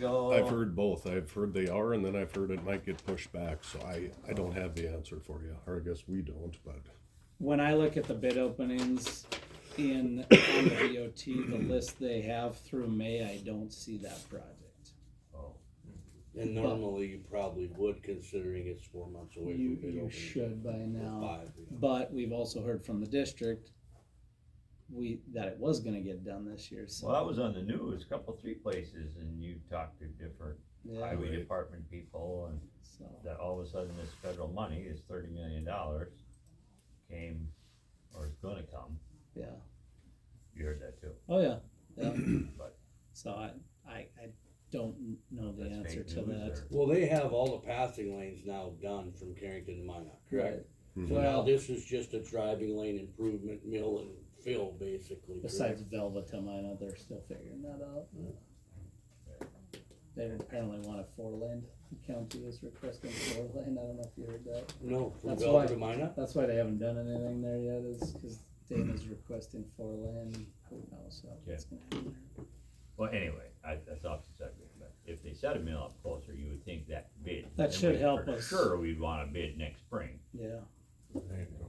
go? I've heard both. I've heard they are, and then I've heard it might get pushed back, so I, I don't have the answer for you, or I guess we don't, but. when I look at the bid openings in, on the DOT, the list they have through May, I don't see that project. Oh. And normally you probably would considering it's four months away You, from bid you opening. should by Or now, Five, yeah. but we've also heard from the district, we, that it was gonna get done this year, Well, so. that was on the news, a couple, three places, and you talked to different Yeah, highway Right. department people, and so, that all of a sudden this federal money, this thirty million dollars came, or is gonna come, yeah, you heard that too, oh, yeah, yeah, but so I, I, I don't know the that's answer fake to that. news or. Well, they have all the passing lanes now done from Carrington to Minot, correct? hmm. So now Well- this is just a driving lane improvement, mill and fill basically, Besides correct? Velva to Minot, they're still figuring that out. They apparently want a four lane, the county is requesting four lane, I don't know if you heard that. No, from That's Bellevue why- to Minot? That's why they haven't done anything there yet, is cause Dana's requesting four lane, who knows how that's gonna happen. Well, anyway, I, that's off the subject, but if they set a mill up closer, you would think that bid. That then should we- help for us. Sure, we'd want a bid next spring, Yeah,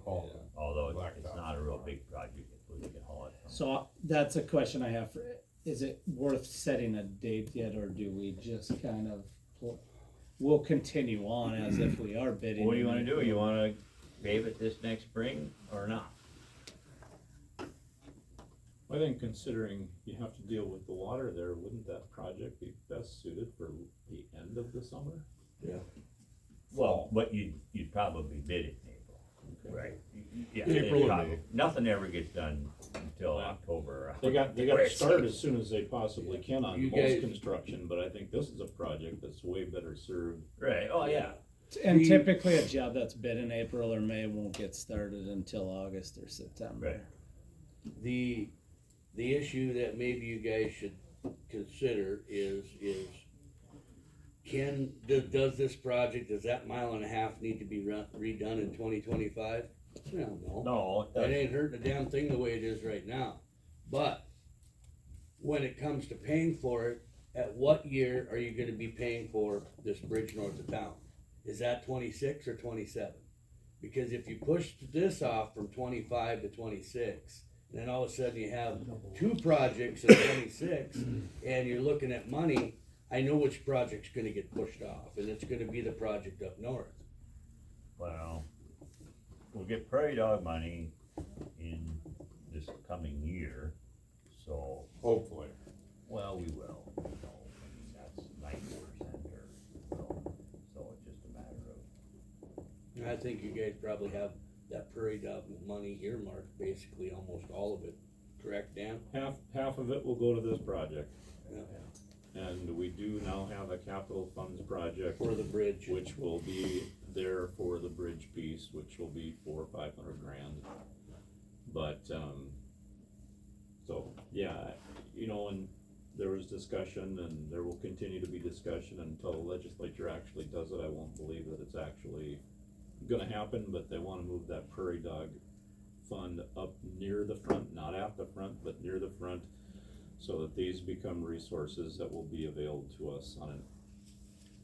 although it's- it's Blacktop. not a real big project, if we can haul it from. so uh, that's a question I have for, is it worth setting a date yet, or do we just kind of, pl- we'll continue on as if we are bidding? What do you wanna do, you wanna pave it this next spring or not? I think considering you have to deal with the water there, wouldn't that project be best suited for the end of the summer? Well, but you, you'd probably bid it in April. Right. Yeah. April or prob- May. Nothing ever gets done until Yeah. October. They got, they got to start as soon as they possibly can You on guys- most construction, but I think this is a project that's way better served. Right, oh, yeah, And We- typically, a job that's bid in April or May won't get started until August or September. Right. The, the issue that maybe you guys should consider is, is can, does, does this project, does that mile and a half need to be run- redone in twenty twenty-five? I don't know. no, it It doesn't. ain't hurting a damn thing the way it is right now. But when it comes to paying for it, at what year are you gonna be paying for this bridge north of town? Is that twenty-six or twenty-seven? Because if you push this off from twenty-five to twenty-six, then all of a sudden you have two projects at twenty-six, and you're looking at money, I know which project's gonna get pushed off, and it's gonna be the project up north. well, we'll get prairie dog money in this coming year, so, Hopefully. well, we will. you know, I mean, That's ninety percent or so, so it's just a matter of And I think you guys probably have that prairie dog money earmarked, basically almost all of it, correct, Dan? Half, half of it will go to this project. Yeah. And we do now have a capital funds project, For the bridge, which will be there for the bridge piece, which will be four or five hundred grand. But, um, so, yeah, you know, and there was discussion and there will continue to be discussion until the legislature actually does it. I won't believe that it's actually gonna happen, but they wanna move that prairie dog fund up near the front, not at the front, but near the front, so that these become resources that will be available to us on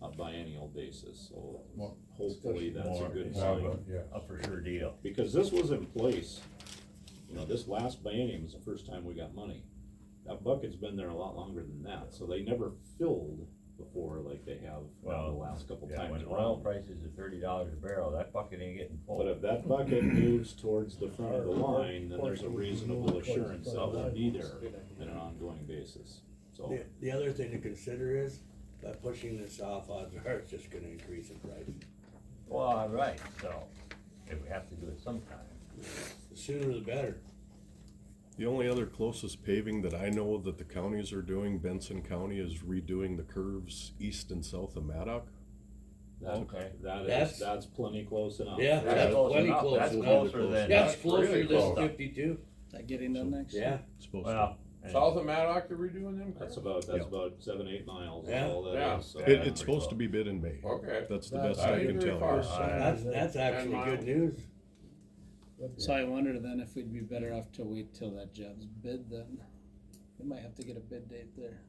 a, a biennial basis, so More- hopefully that's a more- good more sign. a for sure deal. Because this was in place, you know, this last biennium was the first time we got money. That bucket's been there a lot longer than that, so they never filled before like they have now the Well, last couple Yeah, times when oil around. prices are thirty dollars a barrel, that bucket ain't getting full. But if that bucket moves towards the front of the line, then there's a reasonable assurance that will be there on an ongoing basis, so. the, the other thing to consider is, by pushing this off, odds are it's just gonna increase in price. Well, all right, so, if we have to do it sometime, The sooner the better. The only other closest paving that I know that the counties are doing, Benson County is redoing the curves east and south of Maddock. That, Okay. that That's- is, that's plenty close enough. Yeah, that's close plenty enough. close That's enough. closer than- That's that's closer really than close. fifty-two, That getting done next year? yeah, Supposed to. well. and- South of Maddock, are we doing them? That's about, that's Yeah. about seven, eight miles, Yeah. all Yeah. that is, so. Yeah. It, it's supposed to be bid in May. Okay. That's the That- best that I ain't can very tell far. you. that's, that's actually good miles. news. So I wonder then if we'd be better off to wait till that job's bid then. We might have to get a bid date there.